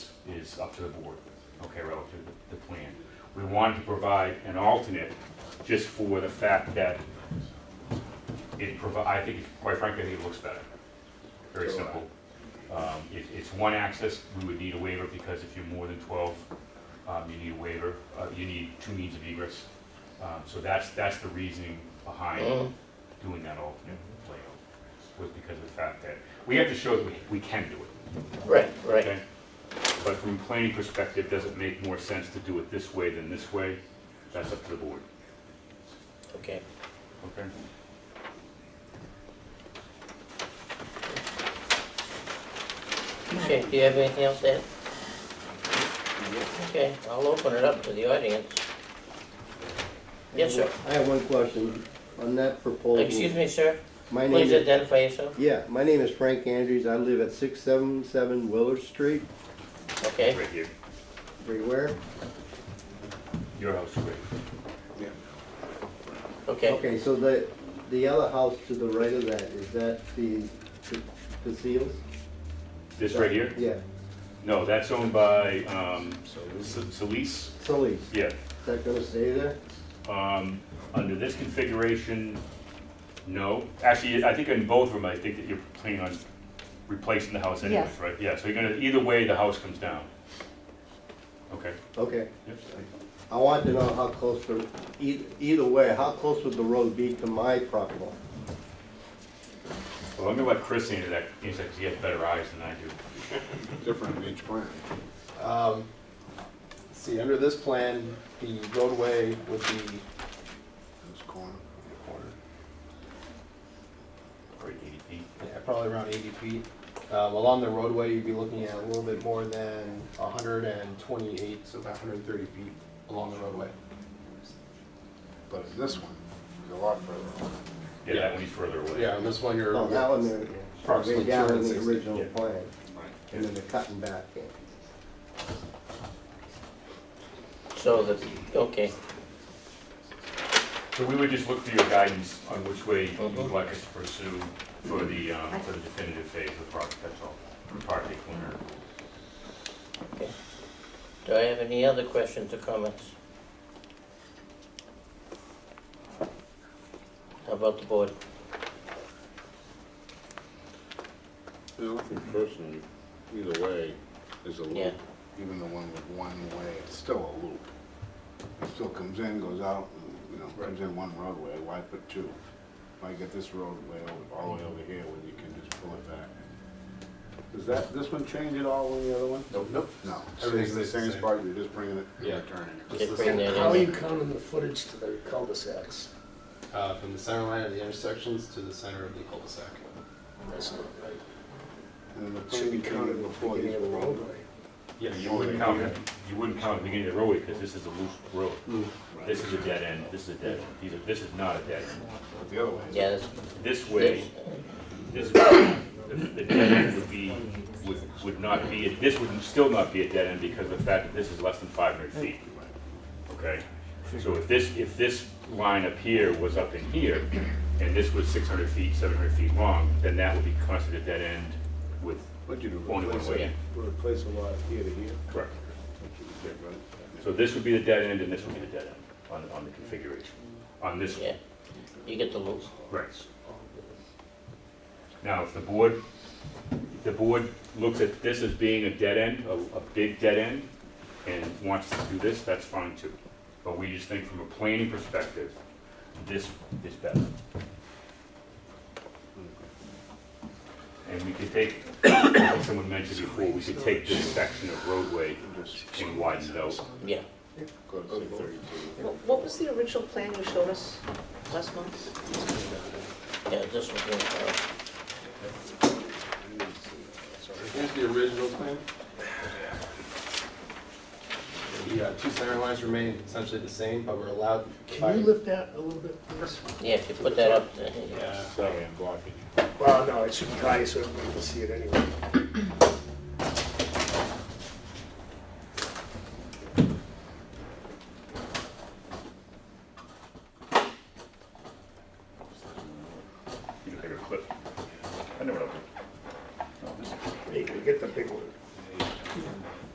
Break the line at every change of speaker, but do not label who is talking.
is up to the board, okay, relative to the plan. We wanted to provide an alternate just for the fact that it provi, I think, quite frankly, I think it looks better. Very
So, uh,
simple. Um, it, it's one access, we would need a waiver because if you're more than twelve, um, you need a waiver, uh, you need two means of egress. Um, so that's, that's the reasoning behind doing that alternate layout, was because of the fact that, we have to show that we, we can do it.
Right, right.
Okay, But from a planning perspective, does it make more sense to do it this way than this way? That's up to the board,
Okay.
okay?
Okay, do you have anything else to add? Okay, I'll open it up to the audience. Yes, sir.
I have one question on that proposal.
Excuse me, sir.
My name
Please
is,
identify yourself.
yeah, my name is Frank Andrews. I live at six seven seven Willard Street,
Okay,
Right here,
everywhere.
your house, right?
okay.
Okay, so the, the yellow house to the right of that, is that the, the- the seals?
This right here?
Yeah,
No, that's owned by, um, Sa- Solis,
Sully's. Is
yeah.
that gonna stay there?
Um, under this configuration, no. Actually, I think in both of them, I think that you're planning on replacing the house anyways,
Yes.
right? Yeah, so you're gonna, either way, the house comes down. Okay,
Okay.
yep.
I want to know how close the, e- either way, how close would the road be to my property line?
Well, I'm gonna let Chris answer that, answer, because he has better eyes than I do.
different in each plan.
Um, See, under this plan, the roadway would be,
This corner,
Or eighty feet.
yeah, probably around 80 feet. Um, Along the roadway, you'd be looking at a little bit more than 128, so about 130 feet along the roadway.
but this one is a lot further. on.
Yeah, that one's further away.
Yeah, and this one, you're,
Oh, that one there, way
Approximately
down in the
260,
original
yeah.
plan,
Right.
and then they're cutting back in.
So the, okay,
So we would just look for your guidance on which way you'd like us to pursue for the, um, for the definitive phase of the project, that's all. Project owner.
do I have any other questions or comments? How about the board?
You know, I think personally, either way is a
Yeah.
loop. Even the one with one way, it's still a loop. It still comes in, goes out, and, you know, comes in one roadway, why put two? Why get this roadway over- all the way over here when you can just pull it back? Does that, this one change at all with the other one?
Nope. Nope.
No.
Everything's the
It's
same.
spot, you're just bringing it,
Yeah.
you're turning it.
Just
the
bring
same
that
How are
in.
you counting the footage to the cul-de-sacs?
uh, from the center line of the intersections to the center of the cul-de-sac.
That's not right.
And then the plan
Should be
you counted
counted
before
before
these
the
were all
roadway.
Yeah, you wouldn't count, you wouldn't count the beginning of the roadway, because this is a loose road. This is a dead end, this is a dead end, these are, this is not a dead end.
But the other way.
Yeah, that's,
This way, this way, the, the dead end would be, would, would not be, a- this would still not be a dead end because of the fact that this is less than five hundred feet. Okay, so if this, if this line up here was up in here, and this was six hundred feet, seven hundred feet long, then that would be considered a dead end with,
What'd you do,
Only one
replace
way.
it, replace a lot here to here?
correct.
That's what you did, right?
So this would be the dead end and this would be the dead end on, on the configuration, on this one.
yeah, you get the loop.
Right. Now, if the board, if the board looks at this as being a dead end, a, a big dead end, and wants to do this, that's fine too. But we just think from a planning perspective, this is better. And we could take, like someone mentioned before, we could take this section of roadway and widen it out.
Yeah.
Go to six thirty-two.
Wh- What was the original plan you showed us last month?
Yeah, this one, uh,
Here's the original plan. The uh, two center lines remain essentially the same, but we're allowed by...
Can you lift that a little bit, please?
yeah, if you put that up, uh,
Yeah.
Sorry, I'm blocking you.
Well, no, it should be high so everybody can see it anyway.
Oh,